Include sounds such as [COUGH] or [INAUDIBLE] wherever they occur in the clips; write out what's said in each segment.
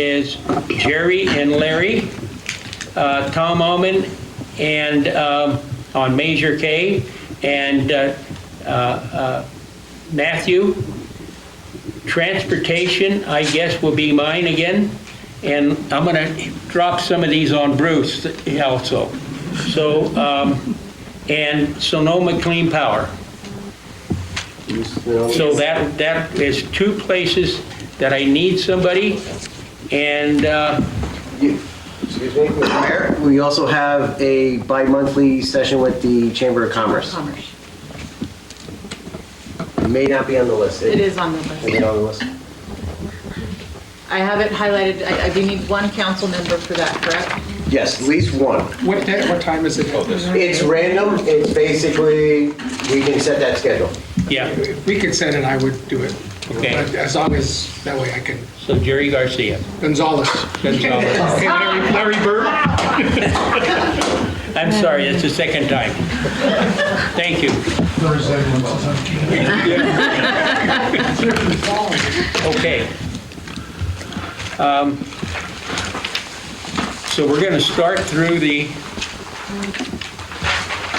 is Jerry and Larry, uh, Tom Alman, and um, on Measure K, and uh, uh, uh, Matthew. Transportation, I guess, will be mine again, and I'm going to drop some of these on Bruce also. So, um, and Sonoma Clean Power. So that, that is two places that I need somebody, and uh, Excuse me, Mr. Mayor, we also have a bi-monthly session with the Chamber of Commerce. Commerce. It may not be on the list. It is on the Is it list. on the list? I have it highlighted, I I do need one council member for that, correct? Yes, at least one. What day, what time is it? It's random, it's basically, we can set that schedule. yeah, If We could send it, I would do it. Okay. But As long as, that way I can, so Jerry Garcia. Gonzalez. Gonzalez. Okay, Larry Larry Bird? I'm sorry, that's the second time. Thank you. Okay. Um, So we're going to start through the,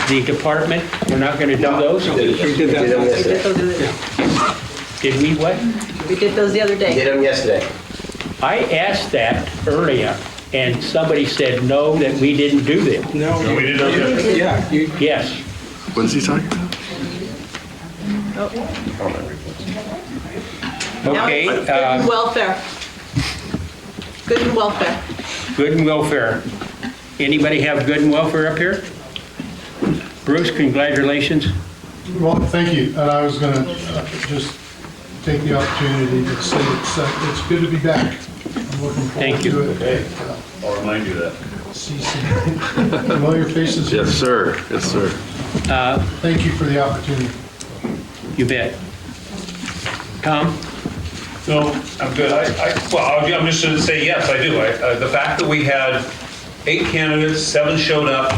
the department. We're not going to do those? We did We did them that. We did yesterday. those the other- Did we what? we did those the other We day. Did them yesterday. I asked that earlier, and somebody said, no, that we didn't do that. No, we did that. Yeah, you, Yes. What's he talking about? Oh. Okay, Now it's Good and uh, welfare. Good and welfare. good and welfare. Anybody have good and welfare up here? Bruce, congratulations. Well, thank you, and I was gonna uh, just take the opportunity to say it's, uh, it's good to be back. I'm looking forward Thank you. to it. I'll remind you that. See some [LAUGHS] familiar faces. here. Yes, sir. Yes, sir. Uh, Thank you for the opportunity. You bet. Tom? No, I'm good. I, I, well, I'll- I'm just gonna say, yes, I do. I, uh, the fact that we had eight candidates, seven showed up,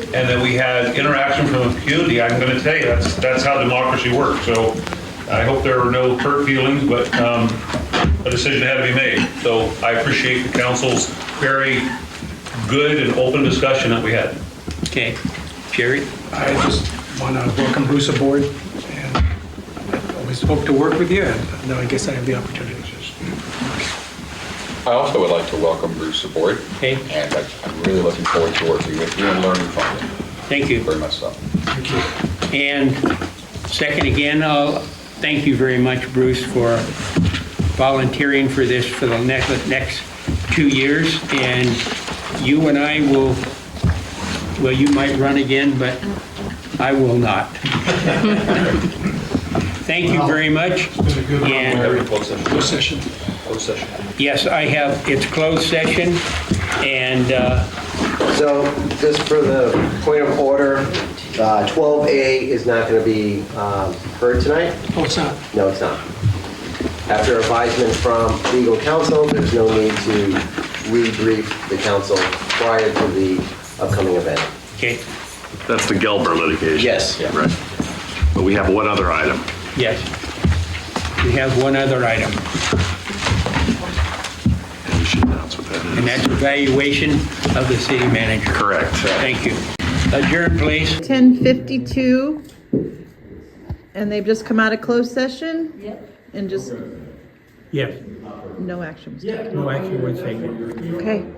and that we had interaction from the community, I'm gonna tell you, that's, that's how democracy works. So I hope there are no hurt feelings, but, um, a decision had to be made. So I appreciate the council's very good and open discussion that we had. Okay. Jerry? I just want to welcome Bruce aboard, and I always hope to work with you, and now I guess I have the opportunity. I also would like to welcome Bruce aboard, Okay, and I- I'm really looking forward to working with you and learning from you, thank you. very much so. And second again, I'll thank you very much, Bruce, for volunteering for this for the next, next two years. And you and I will, well, you might run again, but I will not. [LAUGHS] Thank you very much. It's been a good run. And Close session. Close session. Close session. Yes, I have, it's closed session, and uh, So just for the point of order, uh, 12A is not going to be um, heard tonight. Oh, it's not. No, it's not. After advisement from legal counsel, there's no need to re-brief the council prior to the upcoming event. okay, That's the Gelber litigation. Yes. Right. But we have one other item. yes. We have one other item, And you should announce what that and is. that's evaluation of the city manager. Correct. Thank you. Adjourn, please. 10:52, and they've just come out of closed session? Yep. And just, Yes, no action was taken. no action was taken. Okay.